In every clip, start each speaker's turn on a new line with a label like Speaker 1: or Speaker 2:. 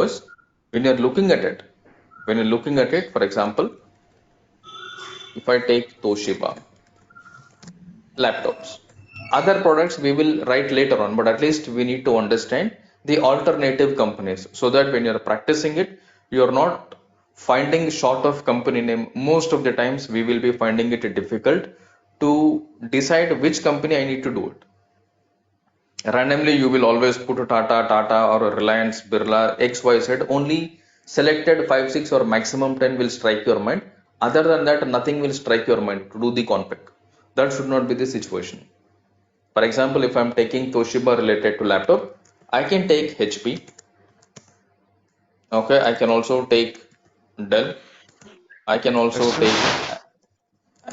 Speaker 1: Because when you're looking at it, when you're looking at it, for example, if I take Toshiba laptops, other products we will write later on, but at least we need to understand the alternative companies so that when you're practicing it, you're not finding short of company name. Most of the times we will be finding it difficult to decide which company I need to do it randomly you will always put a tata tata or a reliance birla xyz only selected 5 6 or maximum 10 will strike your mind other than that nothing will strike your mind to do the conpack that should not be the situation for example if i'm taking toshiba related to laptop i can take hp okay i can also take dell i can also take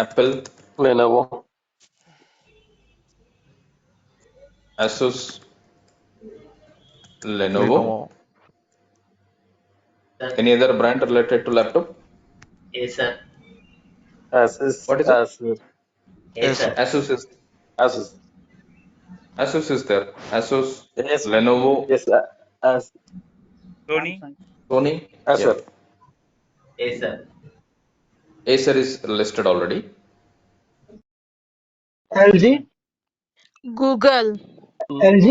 Speaker 1: apple
Speaker 2: Lenovo.
Speaker 1: asus lenovo
Speaker 3: Lenovo.
Speaker 4: Sir,
Speaker 1: any other brand related to laptop
Speaker 4: yes, sir.
Speaker 2: Asus,
Speaker 1: what is it
Speaker 2: Asus,
Speaker 4: Yes,
Speaker 3: Yes,
Speaker 4: sir.
Speaker 3: sir.
Speaker 1: asus is
Speaker 2: Asus.
Speaker 1: Asus is there. Asus,
Speaker 2: Yes,
Speaker 1: Lenovo,
Speaker 2: yes, uh, Asus.
Speaker 5: Sony,
Speaker 1: Sony. Yeah.
Speaker 2: Asus.
Speaker 4: Yes, sir.
Speaker 1: Acer is listed already.
Speaker 6: LG,
Speaker 7: Google,
Speaker 6: LG,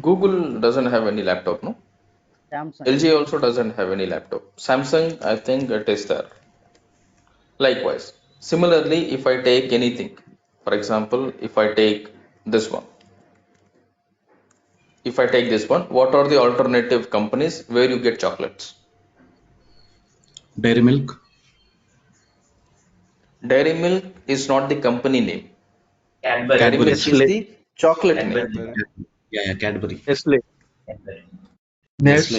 Speaker 1: Google doesn't have any laptop, no?
Speaker 5: Samsung,
Speaker 1: LG also doesn't have any laptop. Samsung, I think it is there. Likewise. Similarly, if I take anything, for example, if I take this one, if I take this one, what are the alternative companies where you get chocolates?
Speaker 8: Dairy Milk,
Speaker 1: Dairy Milk is not the company name.
Speaker 4: Cadbury,
Speaker 1: Dairy
Speaker 8: Cadbury,
Speaker 1: Milk is
Speaker 2: Nestle,
Speaker 1: the chocolate name.
Speaker 4: Cadbury,
Speaker 3: Cadbury.
Speaker 8: yeah, yeah, Cadbury,
Speaker 2: Nestle.
Speaker 4: Cadbury.
Speaker 8: Nestle.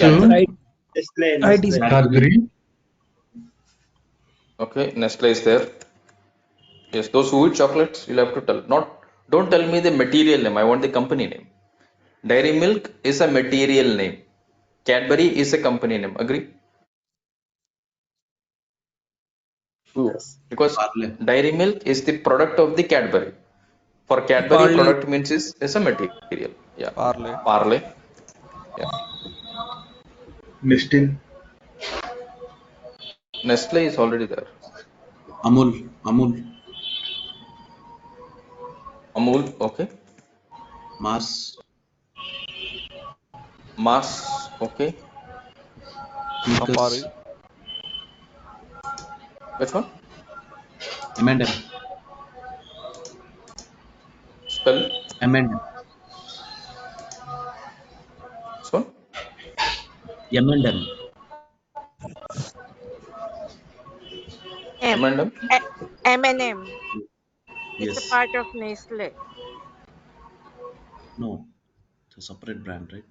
Speaker 9: Nestle,
Speaker 8: Cadbury.
Speaker 9: I,
Speaker 6: display,
Speaker 9: I
Speaker 6: display.
Speaker 9: disagree.
Speaker 1: Okay, Nestle is there. Yes, those who eat chocolates, you'll have to tell. Not, don't tell me the material name. I want the company name. Dairy Milk is a material name. Cadbury is a company name. Agree?
Speaker 2: Yes.
Speaker 1: Because
Speaker 8: Parle.
Speaker 1: Dairy Milk is the product of the Cadbury. For Cadbury,
Speaker 3: Parley.
Speaker 1: product means is, is a material. Yeah.
Speaker 3: Parley.
Speaker 1: Parley. Yeah.
Speaker 9: Nestle,
Speaker 1: Nestle is already there.
Speaker 8: Amul, Amul,
Speaker 1: Amul. Okay.
Speaker 8: Mars,
Speaker 1: Mars. Okay.
Speaker 3: Campari.
Speaker 8: Snickers,
Speaker 1: Which one?
Speaker 8: M&M,
Speaker 1: Spell.
Speaker 8: M&M,
Speaker 1: This one.
Speaker 8: M&M,
Speaker 7: M,
Speaker 1: M&M.
Speaker 7: E- M&M. It's a
Speaker 8: yes,
Speaker 7: part of Nestle.
Speaker 8: no, it's a separate brand, right?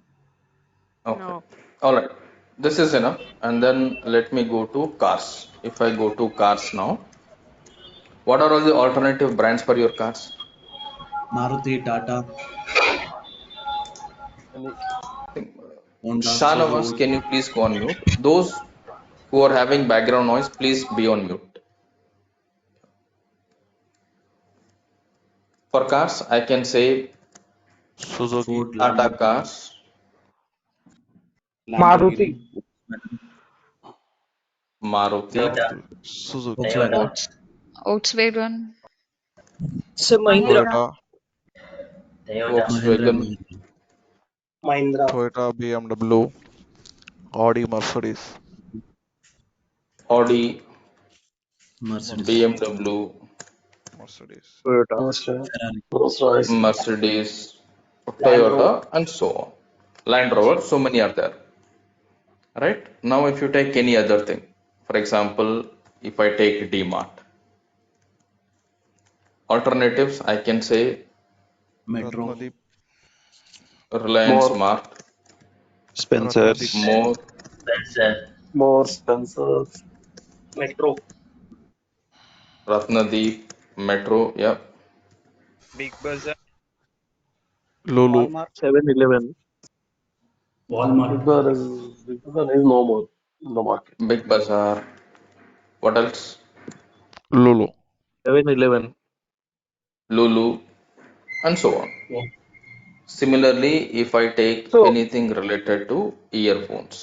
Speaker 1: Okay.
Speaker 7: No.
Speaker 1: All right. This is enough. And then let me go to cars. If I go to cars now, what are all the alternative brands for your cars?
Speaker 8: Maruti, Tata,
Speaker 2: Any-
Speaker 8: Honda,
Speaker 1: Shanavas, can you please go on mute? Those who are having background noise, please be on mute. For cars, I can say
Speaker 3: Suzuki.
Speaker 8: Ford,
Speaker 1: Tata
Speaker 8: Lamborghini,
Speaker 1: Cars,
Speaker 6: Maruti,
Speaker 8: Lamborghini,
Speaker 1: Maruti,
Speaker 4: Toyota,
Speaker 3: Maruti. Suzuki.
Speaker 4: Toyota,
Speaker 8: Volkswagen,
Speaker 9: Volks,
Speaker 10: Volkswagen,
Speaker 6: Sir Mahindra,
Speaker 7: Mahindra,
Speaker 3: Toyota.
Speaker 4: Toyota,
Speaker 8: Mahindra,
Speaker 1: Volkswagen,
Speaker 6: Mahindra,
Speaker 8: Mahindra,
Speaker 3: Toyota. BMW. Audi. Mercedes.
Speaker 1: Audi,
Speaker 8: Mercedes,
Speaker 1: BMW,
Speaker 3: Mercedes.
Speaker 2: Toyota,
Speaker 6: Rolls Royce,
Speaker 8: Ferrari,
Speaker 2: Rolls
Speaker 1: Mm.
Speaker 2: Royce,
Speaker 1: Mercedes,
Speaker 6: Land Rover,
Speaker 1: Toyota, and so on. Land Rover, so many are there, right? Now, if you take any other thing, for example, if I take DMart, alternatives, I can say
Speaker 8: Metro,
Speaker 3: Ratnadeep.
Speaker 1: Reliance
Speaker 2: more,
Speaker 1: Mart,
Speaker 3: Ratnadeep.
Speaker 11: Spencer's,
Speaker 1: More,
Speaker 4: Spencer,
Speaker 2: more Spencer's,
Speaker 6: Metro,
Speaker 1: Ratnadeep, Metro, yeah,
Speaker 5: Big Bazaar,
Speaker 3: Lulu.
Speaker 5: Walmart,
Speaker 2: 7-Eleven. Big
Speaker 11: Walmart,
Speaker 2: Bazaar is, Big Bazaar is no more in the market.
Speaker 1: Big Bazaar. What else?
Speaker 3: Lulu.
Speaker 2: 7-Eleven.
Speaker 1: Lulu, and so on. Similarly, if I take
Speaker 6: So-
Speaker 1: anything related to earphones.